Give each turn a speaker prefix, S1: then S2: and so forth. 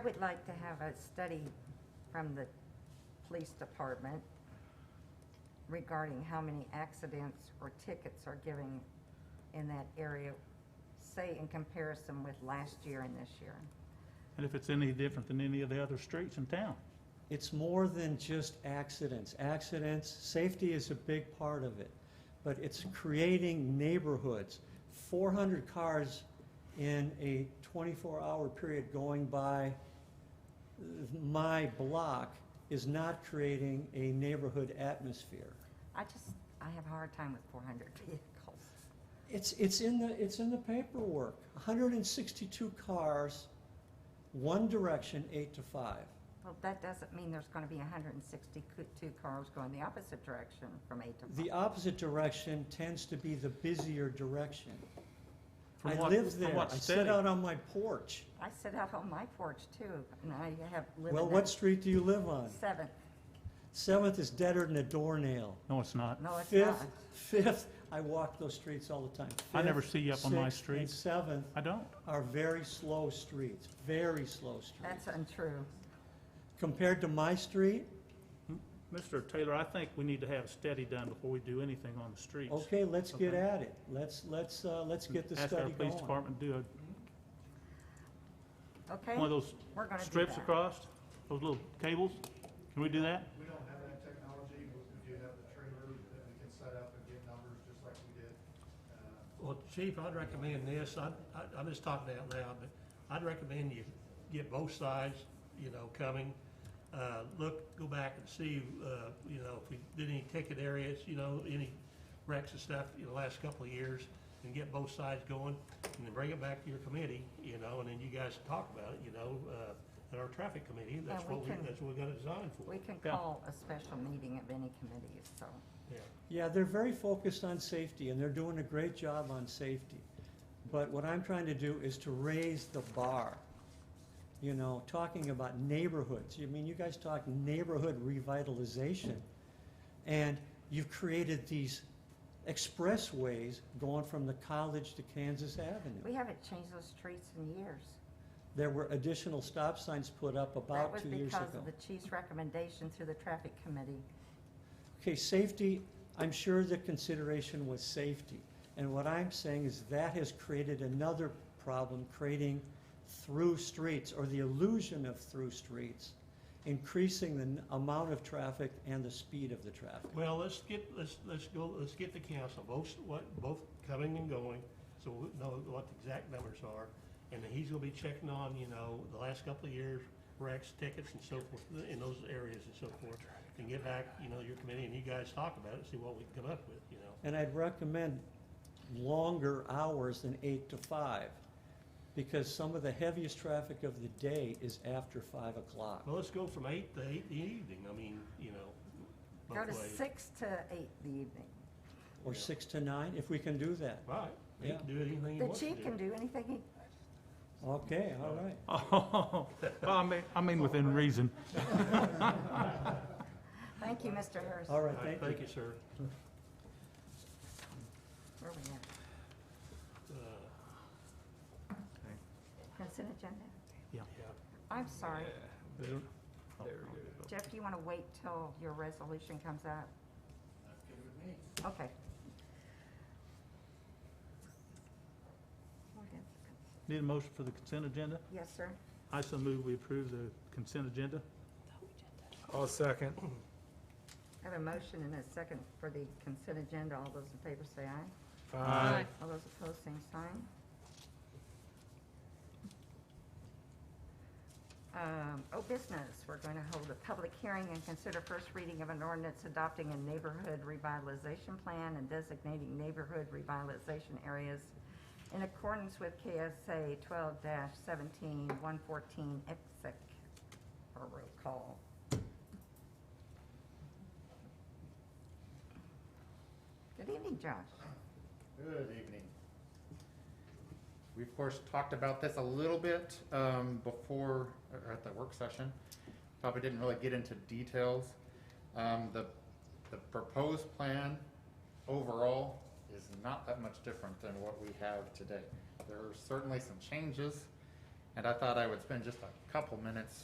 S1: I would like to have a study from the police department regarding how many accidents or tickets are giving in that area, say in comparison with last year and this year.
S2: And if it's any different than any of the other streets in town?
S3: It's more than just accidents. Accidents, safety is a big part of it, but it's creating neighborhoods. 400 cars in a 24-hour period going by my block is not creating a neighborhood atmosphere.
S1: I just, I have a hard time with four hundred vehicles.
S3: It's, it's in the, it's in the paperwork. 162 cars, one direction, eight to five.
S1: Well, that doesn't mean there's gonna be hundred and sixty-two cars going the opposite direction from eight to
S3: The
S1: five.
S3: opposite direction tends to be the busier direction.
S2: From
S3: I
S2: what-
S3: live
S2: from
S3: there. I
S2: what
S3: sit
S2: study?
S3: out on my porch.
S1: I sit out on my porch too, and I have lived
S3: Well,
S1: in
S3: what
S1: that
S3: street do you live on?
S1: seventh.
S3: Seventh is deader than a doornail.
S2: No, it's not.
S1: No, Oh, it's
S3: Fifth,
S1: not.
S3: Fifth, I walk those streets all the time.
S2: I never
S3: Fifth,
S2: see you up on my
S3: sixth, and
S2: streets.
S3: seventh
S2: I don't.
S3: are very slow streets, very slow streets.
S1: That's untrue.
S3: Compared to my street,
S2: Mr. Taylor, I think we need to have a study done before we do anything on the streets.
S3: okay, let's get
S2: Okay. Hmm.
S3: at it. Let's, let's, uh, let's get the
S2: Ask our
S3: study
S2: police
S3: going.
S2: department, to do a,
S1: Okay,
S2: one of those
S1: we're gonna do
S2: strips
S1: that.
S2: across, those little cables. Can we do that?
S4: We don't have that technology, but we do have the trailer that we can set up and get numbers just like we did. uh,
S5: Well, Chief, I'd recommend this, I, I- I'm just talking out loud, but I'd recommend you get both sides, you know, coming. Uh, look, go back and see, uh, you know, if we did any ticket areas, you know, any wrecks and stuff in the last couple of years, and get both sides going, and then bring it back to your committee, you know, and then you guys talk about it, you know, uh, at our traffic committee, that's
S1: And we
S5: what we,
S1: can-
S5: that's what we got it designed for.
S1: We can
S2: Yeah.
S1: call a special meeting of any committees, so.
S5: Yeah.
S3: Yeah, they're very focused on safety and they're doing a great job on safety. But what I'm trying to do is to raise the bar. You know, talking about neighborhoods, you mean, you guys talk neighborhood revitalization. And you've created these expressways going from the college to Kansas Avenue.
S1: We haven't changed those streets in years.
S3: There were additional stop signs put up
S1: That
S3: about
S1: was
S3: two years ago.
S1: because of the chief's recommendation through the traffic committee.
S3: Okay, safety, I'm sure the consideration was safety. And what I'm saying is that has created another problem, creating through streets or the illusion of through streets, increasing the n- amount of traffic and the speed of the traffic.
S5: Well, let's get, let's, let's go, let's get the council, both, what, both coming and going, so we know what the exact numbers are. And then he's gonna be checking on, you know, the last couple of years, wrecks, tickets and so forth, in those areas and so forth. And get back, you know, your committee and you guys talk about it, see what we can come up with, you know.
S3: And I'd recommend longer hours than eight to five, because some of the heaviest traffic of the day is after five o'clock.
S5: Well, let's go from eight to eight in the evening, I mean, you know,
S1: Go
S5: both
S1: to
S5: ways.
S1: six to eight the evening.
S3: Or
S5: Yeah.
S3: six to nine, if we can do that.
S5: Right, you
S3: Yeah.
S5: can do anything you
S1: The
S5: want to do.
S1: chief can do anything he,
S3: Okay, all right.
S2: Oh, I mean, I mean within reason.
S1: thank you, Mr. Harris.
S3: All right,
S5: All
S3: thank
S5: right,
S3: you.
S5: thank you, sir.
S1: Where we at?
S5: Uh,
S1: Consent agenda?
S5: yeah.
S1: I'm sorry.
S6: There we go.
S1: Jeff, do you want to wait till your resolution comes out? That's good with me. Okay.
S2: Need a motion for the consent agenda?
S1: Yes, sir.
S2: I so move we approve the consent agenda.
S6: I'll second.
S1: I have a motion and a second for the consent agenda. All those in favor say aye.
S6: Aye.
S1: All those opposed, same sign. Um, Oh, business, we're going to hold a public hearing and consider first reading of an ordinance adopting a neighborhood revitalization plan and designating neighborhood revitalization areas in accordance with KSA 12-17-114 exec, or roll call. Good evening, Josh.
S4: Good evening. We, of course, talked about this a little bit um, before, or at the work session. Probably didn't really get into details. Um, The, the proposed plan overall is not that much different than what we have today. There are certainly some changes And I thought I would spend just a couple minutes